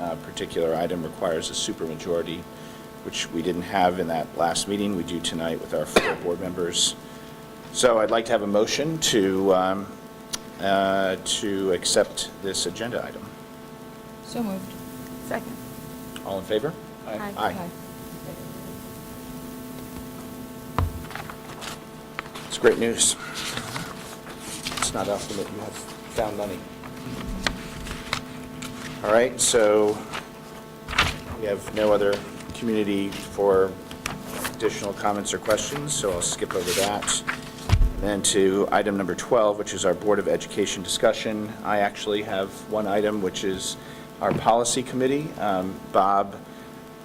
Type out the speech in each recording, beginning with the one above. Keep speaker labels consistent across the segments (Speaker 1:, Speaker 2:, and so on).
Speaker 1: uh, particular item requires a supermajority, which we didn't have in that last meeting. We do tonight with our four board members. So I'd like to have a motion to, um, uh, to accept this agenda item.
Speaker 2: So moved.
Speaker 3: Second.
Speaker 1: All in favor?
Speaker 3: Aye.
Speaker 1: Aye. It's great news. It's not often that you have found money. All right, so we have no other community for additional comments or questions, so I'll skip over that. Then to item number 12, which is our Board of Education discussion. I actually have one item, which is our policy committee. Um, Bob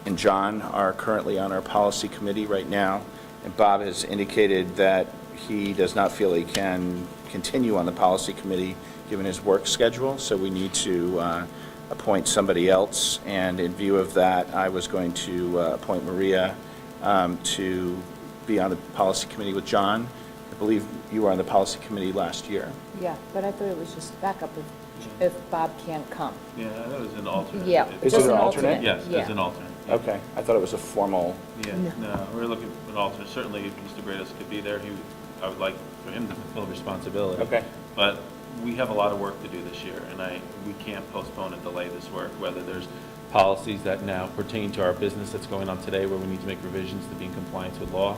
Speaker 1: and John are currently on our policy committee right now, and Bob has indicated that he does not feel he can continue on the policy committee, given his work schedule, so we need to uh, appoint somebody else, and in view of that, I was going to uh, appoint Maria um, to be on the policy committee with John. I believe you were on the policy committee last year.
Speaker 2: Yeah, but I thought it was just backup if, if Bob can't come.
Speaker 4: Yeah, that was an alternate.
Speaker 2: Yeah.
Speaker 1: Is
Speaker 2: just
Speaker 1: it an alternate?
Speaker 4: Yes,
Speaker 2: Yeah.
Speaker 4: as an alternate.
Speaker 1: Okay, I thought it was a formal,
Speaker 4: Yeah, no, we're looking for an alternate. Certainly, if Mr. Grados could be there, he, would- I would like for him to fulfill responsibility.
Speaker 1: Okay.
Speaker 4: But we have a lot of work to do this year, and I, we can't postpone and delay this work, whether there's policies that now pertain to our business that's going on today, where we need to make revisions to be in compliance with law,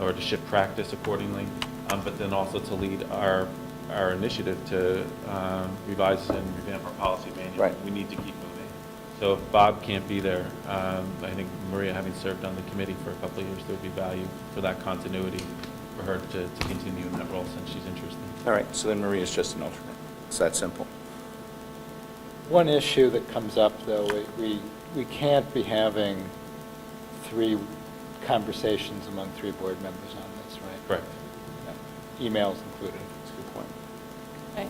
Speaker 4: or to shift practice accordingly, um, but then also to lead our, our initiative to um, revise and revamp our policy manual.
Speaker 1: Right.
Speaker 4: We need to keep moving. So if Bob can't be there, um, I think Maria, having served on the committee for a couple of years, there would be value for that continuity for her to, to continue in that role since she's interested.
Speaker 1: all right, so then Maria's just an alternate. It's that simple.
Speaker 5: One issue that comes up, though, we- we, we can't be having three conversations among three board members on this, right?
Speaker 4: Correct.
Speaker 5: Emails included.
Speaker 1: That's a good point.
Speaker 2: Right.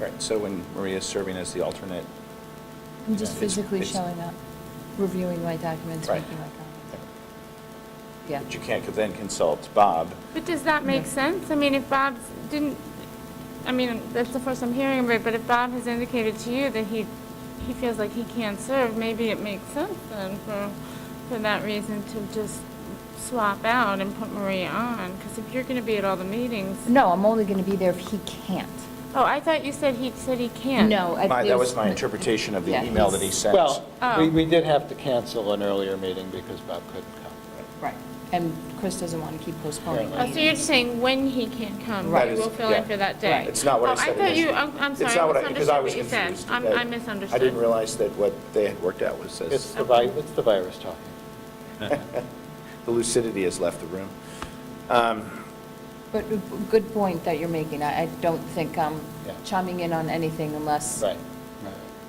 Speaker 1: Right, so when Maria's serving as the alternate,
Speaker 2: I'm just
Speaker 1: It's-
Speaker 2: physically
Speaker 1: it's-
Speaker 2: showing up, reviewing my documents,
Speaker 1: Right.
Speaker 2: making my comments. Yeah.
Speaker 1: but you can't then consult Bob.
Speaker 3: But does that make sense? I mean, if Bob didn't, I mean, that's the first I'm hearing of it, but if Bob has indicated to you that he, he feels like he can't serve, maybe it makes sense then for, for that reason to just swap out and put Maria on, because if you're going to be at all the meetings.
Speaker 2: No, I'm only going to be there if he can't.
Speaker 3: Oh, I thought you said he said he can't.
Speaker 2: No. I-
Speaker 1: My- That was my
Speaker 2: there's-
Speaker 1: interpretation of the
Speaker 2: Yeah,
Speaker 1: email that he
Speaker 2: he's-
Speaker 1: sent.
Speaker 5: Well, we,
Speaker 3: Oh.
Speaker 5: we did have to cancel an earlier meeting because Bob couldn't come.
Speaker 2: Right, and Chris doesn't want to keep postponing.
Speaker 3: Oh, so you're just saying when he can come,
Speaker 1: That
Speaker 3: we
Speaker 1: is-
Speaker 3: will fill in
Speaker 1: yeah.
Speaker 3: for that day?
Speaker 2: Right.
Speaker 1: It's not what I
Speaker 3: Oh,
Speaker 1: said.
Speaker 3: I thought you,
Speaker 1: initially.
Speaker 3: I'm I'm
Speaker 1: It's
Speaker 3: sorry,
Speaker 1: not
Speaker 3: I
Speaker 1: what
Speaker 3: misunderstood
Speaker 1: because I was
Speaker 3: what you said.
Speaker 1: confused.
Speaker 3: I'm-
Speaker 1: That-
Speaker 3: I misunderstood.
Speaker 1: I didn't realize that what they had worked out was
Speaker 5: It's
Speaker 1: this.
Speaker 5: the vi, it's the virus talking.
Speaker 1: The lucidity has left the room.
Speaker 2: But a good point that you're making. I, I don't think I'm
Speaker 5: Yeah.
Speaker 2: chiming in on anything unless
Speaker 5: Right.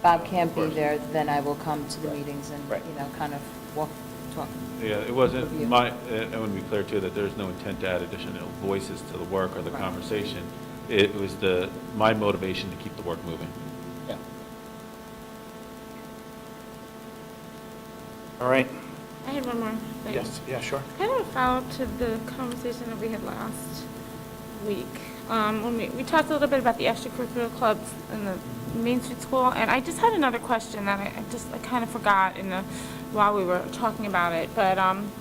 Speaker 2: Bob can't
Speaker 4: Of
Speaker 2: be
Speaker 4: course.
Speaker 2: there, then I will come to the
Speaker 5: Right.
Speaker 2: meetings and,
Speaker 1: Right.
Speaker 2: you know, kind of walk, talk.
Speaker 4: Yeah, it wasn't
Speaker 2: Review.
Speaker 4: my, uh, I want to be clear too, that there's no intent to add additional voices to the work or the
Speaker 2: Right.
Speaker 4: conversation. It was the, my motivation to keep the work moving.
Speaker 5: Yeah.
Speaker 1: All right.
Speaker 3: I had one more thing.
Speaker 1: Yes, yeah, sure.
Speaker 3: Kind of a follow-up to the conversation that we had last week. Um, When we, we talked a little bit about the extracurricular clubs in the Main Street School, and I just had another question that I I just, I kind of forgot in the, while we were talking about it, but, um,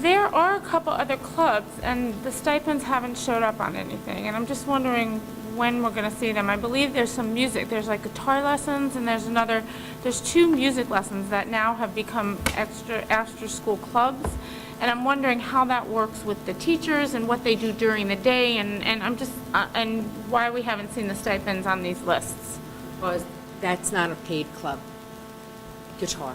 Speaker 3: there are a couple other clubs, and the stipends haven't showed up on anything, and I'm just wondering when we're gonna see them. I believe there's some music, there's like guitar lessons, and there's another, there's two music lessons that now have become extra, after-school clubs, and I'm wondering how that works with the teachers and what they do during the day, and, and I'm just, uh, and why we haven't seen the stipends on these lists.
Speaker 6: Well, that's not a paid club. Guitar.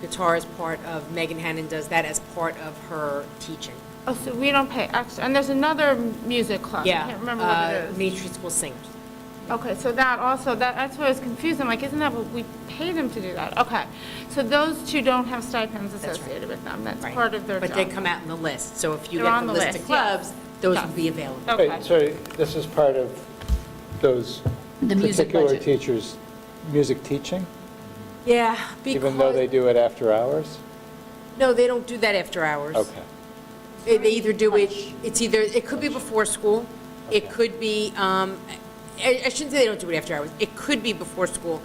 Speaker 6: Guitar is part of, Megan Hannon does that as part of her teaching.
Speaker 3: Oh, so we don't pay extra, and there's another music club. I can't remember what it
Speaker 6: uh,
Speaker 3: is.
Speaker 6: Main Street School Singers.
Speaker 3: Okay, so that also, that, that's where I was confused, I'm like, isn't that what we pay them to do that? Okay, so those two don't have stipends
Speaker 6: right.
Speaker 3: associated with them, that's
Speaker 6: Right.
Speaker 3: part of their job.
Speaker 6: But they come out in the list, so if you
Speaker 3: They're
Speaker 6: get
Speaker 3: on
Speaker 6: the
Speaker 3: the
Speaker 6: list of
Speaker 3: list, yeah.
Speaker 6: clubs, those
Speaker 3: Yeah.
Speaker 6: will be available.
Speaker 3: Okay.
Speaker 5: Wait, so this is part of those
Speaker 2: The music
Speaker 5: particular
Speaker 2: budget.
Speaker 5: teachers' music teaching,
Speaker 6: Yeah, because...
Speaker 5: even though they do it after hours?
Speaker 6: No, they don't do that after hours.
Speaker 5: Okay.
Speaker 6: They they either do it, it's either, it could be before school, it could be, um, I I shouldn't say they don't do it after hours, it could be before school,